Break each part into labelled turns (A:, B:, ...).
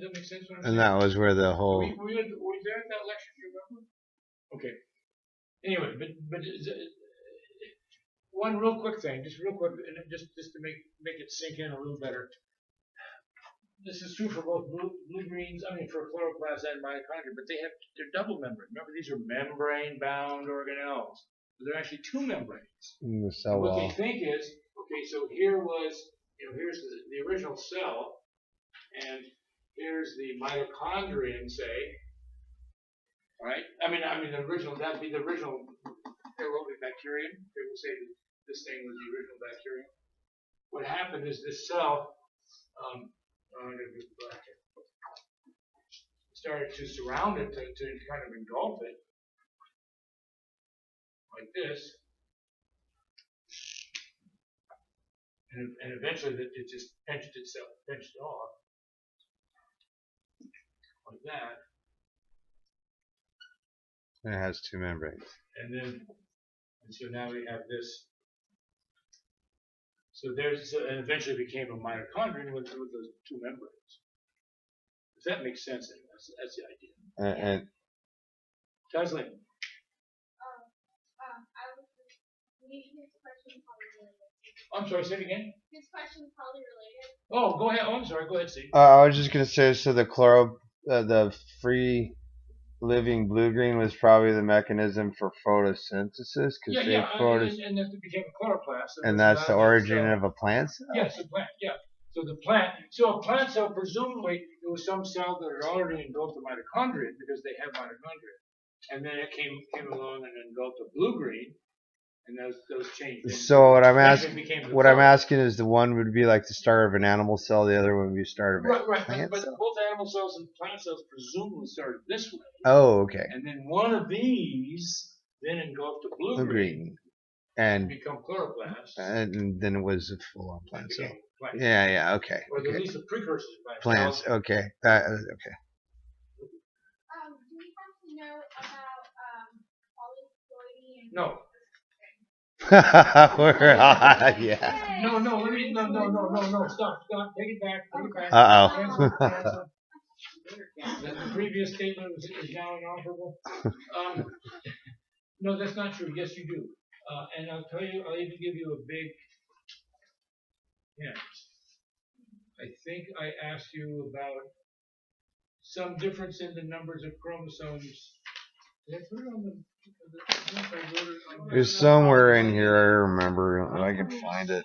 A: Does that make sense? what I'm
B: And
A: saying?
B: that was where the
A: Were
B: whole
A: you, were you at- were you there at that lecture, do you remember? Okay. Anyway, but, but is it- one real quick thing, just real quick, and it- just, just to make, make it sink in a little better. This is true for both blue, blue greens, I mean, for chloroplasts and mitochondria, but they have, they're double membrane. Remember, these are membrane-bound organelles. They're actually two membranes.
B: in the cell
A: What they
B: wall.
A: think is, okay, so here was, you know, here's the, the original cell, and here's the mitochondrion, say, right? I mean, I mean, the original, that'd be the original aerobic bacterium. They will say that this thing was the original bacterium. What happened is this cell, um, I'm gonna do black here. Started to surround it, to, to kind of engulf it, like this. And, and eventually it it just pinched itself, pinched off. Like that,
B: And it has two membranes.
A: and then, and so now we have this. So there's, so- and eventually became a mitochondrion with, with those two membranes. If that makes sense, then that's, that's the idea.
B: And, and
A: Taslim,
C: Um, um, I was just, maybe his question probably related.
A: I'm sorry, say it again?
C: His question probably related.
A: Oh, go ahead, oh, I'm sorry, go ahead, Steve.
B: uh, I was just gonna say, so the chloro, uh, the free living blue green was probably the mechanism for photosynthesis because
A: Yeah,
B: they
A: yeah, I-
B: photos,
A: and, and that became a chloroplast.
B: and that's the origin
A: of.
B: of a plant. Cell?
A: Yes, a plant, yeah. So the plant, so a plant cell presumably it was some cell that had already engulfed the mitochondria because they have mitochondria. And then it came came along and engulfed the blue green and those those changed.
B: So what I'm asking,
A: asking
B: what I'm asking is, the one would be like the start of an animal cell, the other one would be the start of a
A: Right, right, but,
B: plant
A: but
B: cell.
A: both animal cells and plant cells presumably started this way.
B: Oh, okay,
A: And then one of these then engulfed the blue,
B: blue green, and
A: become chloroplasts.
B: and then it was a full-on plant cell.
A: became plant.
B: Yeah, yeah, okay,
A: Or at
B: okay.
A: least the precursors of plant
B: Plants,
A: cells.
B: okay, Uh, that, okay.
C: Um, do we have to know about, um, polyploidy and?
A: No,
B: We're on, yeah.
A: No, no, let me, no, no, no, no, no, stop, stop, take it back, take it back.
B: Uh
C: Um,
B: oh.
A: Cancel, cancel. The the previous statement was, is now inoperable. Um, no, that's not true, yes, you do. Uh, and I'll tell you, I'll even give you a big hint. I think I asked you about some difference in the numbers of chromosomes. Did I put it on the, the- I don't know if I wrote it on the-
B: It's somewhere in here. I remember. I can find it.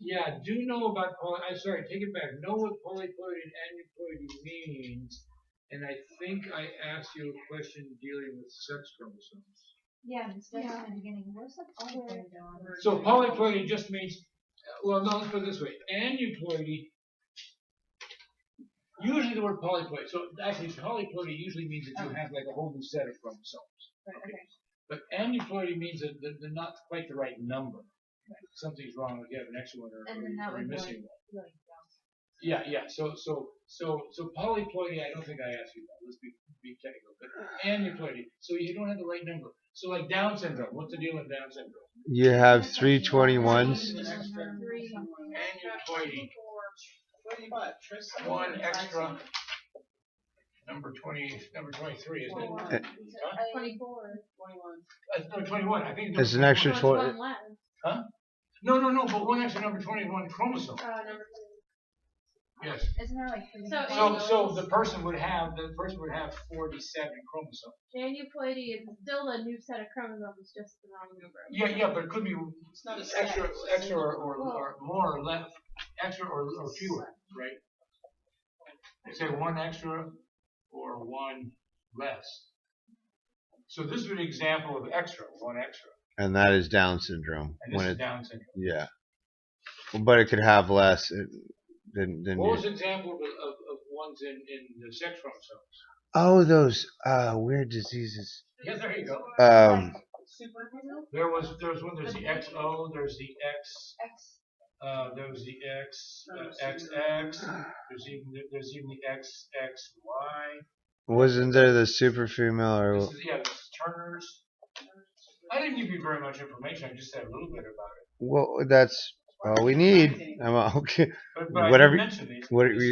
A: Yeah, do know about poly, I'm sorry, take it back, know what polyploidy and aneuploidy means, and I think I asked you a question dealing with sex chromosomes.
D: Yeah, and it's right
C: Yeah.
D: from the beginning. Where's the polyploidy on?
A: So polyploidy just means, well, no, let's put it this way, aneuploidy, usually the word polyploidy, so actually polyploidy usually means that you have like a whole new set of chromosomes.
D: Right, okay.
A: But aneuploidy means that they're they're not quite the right number, something's wrong, if you have an extra one or-
D: And then that
A: or you're
D: would go
A: missing one.
D: Really dumb.
A: Yeah, yeah. So, so, so, so polyploidy. I don't think I asked you that. Let's be be technical. But aneuploidy. So you don't have the right number. So like Down syndrome. What's the deal with Down syndrome?
B: You have three 21s.
D: One,
A: Extra.
D: three,
A: Aneuploidy. One extra. Number twenty. Number twenty-three, isn't it?
B: Eh.
D: four.
A: Huh?
D: Twenty-four.
A: Uh, no, twenty-one. I think. it's
B: It's an
A: number
C: Oh,
B: extra
A: 21.
B: twenty.
A: No, no, no. But one extra number twenty-one chromosome.
D: Uh, number three.
A: Yes.
D: Isn't there like three?
C: So
D: different
A: So, so
D: ones?
A: the person would have the person would have forty-seven chromosomes.
C: Aneuploidy is still a new set of chromosomes, just the wrong number.
A: Yeah, yeah, but it could be
E: not a
A: extra,
E: set.
A: extra or, or, or more or less, extra or, or fewer, right? They say one extra or one less. So this is an example of extra, one extra,
B: And that is Down syndrome.
A: and
B: When
A: this is
B: it,
A: Down syndrome.
B: yeah. But it could have less uh, than than.
A: What was
B: You.
A: an example of, of, of ones in, in the sex chromosomes?
B: Oh, those uh, weird diseases.
A: Yeah, there you go.
B: Um,
A: There was, there was one, there's the XO, there's the X,
D: X.
A: uh, there was the X, uh, XX, there's even, there's even the XXY.
B: wasn't there the super female or?
A: This is, yeah, this is Turner's. I didn't give you very much information. I just said a little bit about it.
B: Well, that's
A: Well, we need. I'm okay.
B: But, but I did
A: Whatever-
B: mention these.
A: What are you